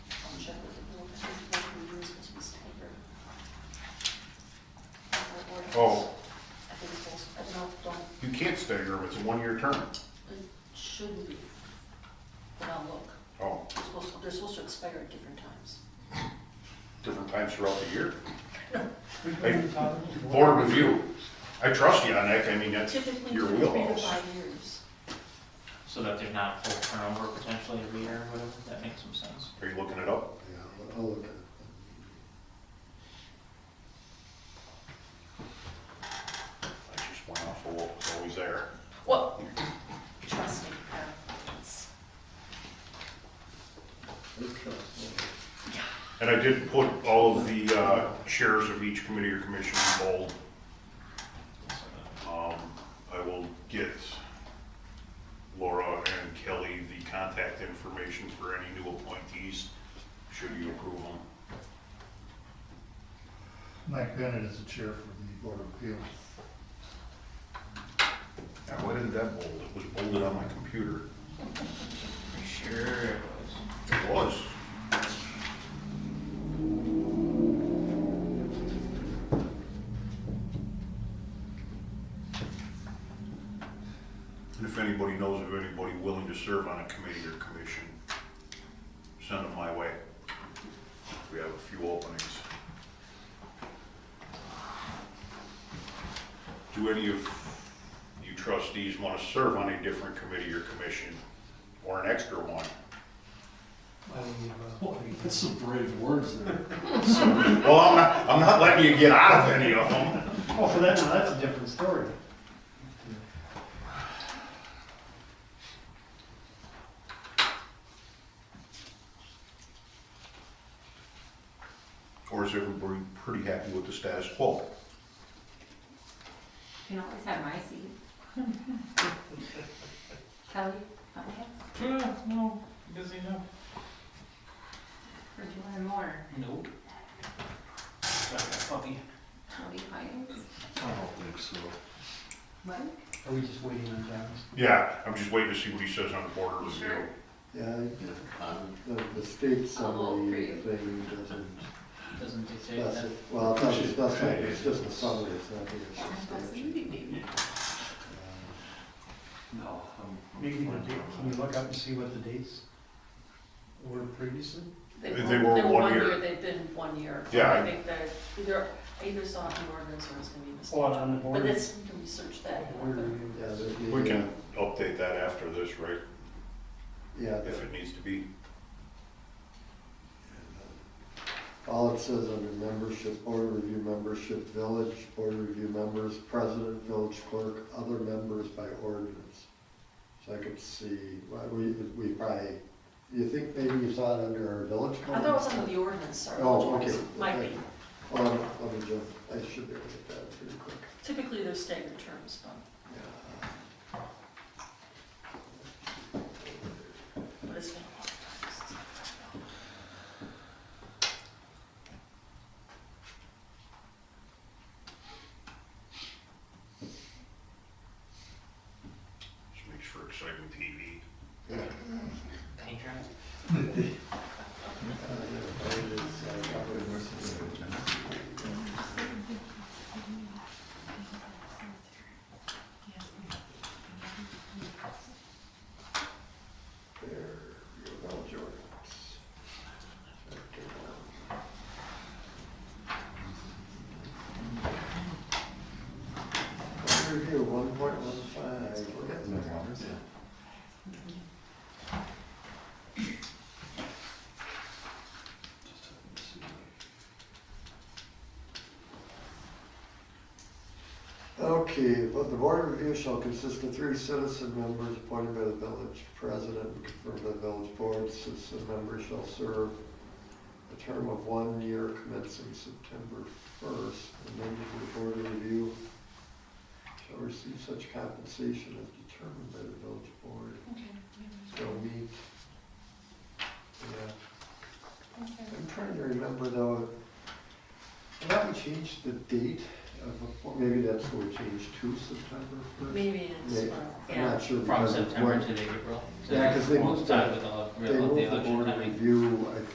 Oh. skid steer, it's a one-year term. It shouldn't be, but I'll look. Oh, They're supposed, they're supposed to expire at different times. different times throughout the year. Hey, Board review, I trust you on that, I mean, that's Typically, your two, three to wheelhouse. five years. So that there's not full turnover potentially every year or whatever, that makes some sense. Are you looking it up? Yeah, I'll look at it. I just went off of what was always there. Well, trust me, uh, it's- And I did put all of the uh, chairs of each committee or commission in bold. Um, I will get Laura and Kelly the contact information for any new appointees, should you approve them. Mike Bennett is the chair for the Board of Appeals. Yeah, why didn't that bold? It was bolded on my computer. Pretty sure it was. It was. And if anybody knows of anybody willing to serve on a committee or commission, send them my way. We have a few openings. Do any of you trustees want to serve on a different committee or commission, or an extra one? That's some brave words there. Well, I'm not, I'm not letting you get out of any of them. Oh, for that, now that's a different story. Or is everybody pretty happy with the status quo? You can always have my seat. Kelly, okay, Yeah, no, Uh, busy enough. or do you want more? Nope. Got a puppy. Kelly Hines? I don't think so. What? Are we just waiting on Travis? Yeah, I'm just waiting to see what he says on the border review. Yeah, the, the state summary I'll vote thing doesn't Doesn't dictate that. specify, well, it doesn't specify, it's just a summary, it's not I the was substantive. leaving. No, I'm- I'm. Maybe the fine. date, can we look up and see what the dates were previously? They- they were they're one year. They've been one year. Yeah, I- I think that either, either saw it in the ordinance or it's gonna be missed. Oh, and on the But board. that's, we can research that. Board review. Yeah, there'd be- We can update that after this, right? Yeah, the- If it needs to be. all it says under membership, board review membership, village, board review members, president, village clerk, other members by ordinance. So I could see, well, we, we probably, you think maybe you saw it under our village code? I thought it was under the ordinance, sorry. Oh, okay. Might be. Hold on, let me jump, I should be able to get that pretty quick. Typically, they're staggered terms, but, but it's been a long time since. This makes for exciting TV. Penny drive. There, your village ordinance. Board Review one point one five. Just have to see that. Okay, but the board of review shall consist of three citizen members appointed by the village president and confirmed by the village board. Citizen members shall serve a term of one year commencing September first. The members of the board of review shall receive such compensation as determined by the village board. Shall meet. Yeah. I'm trying to remember though, have we changed the date of, maybe that's what we changed to September first? Maybe it's, Yeah. uh, I'm yeah. not sure. From because of September what- to the April. Yeah, 'cause they moved Coincide the- with the They real- moved the the election board timing. review, I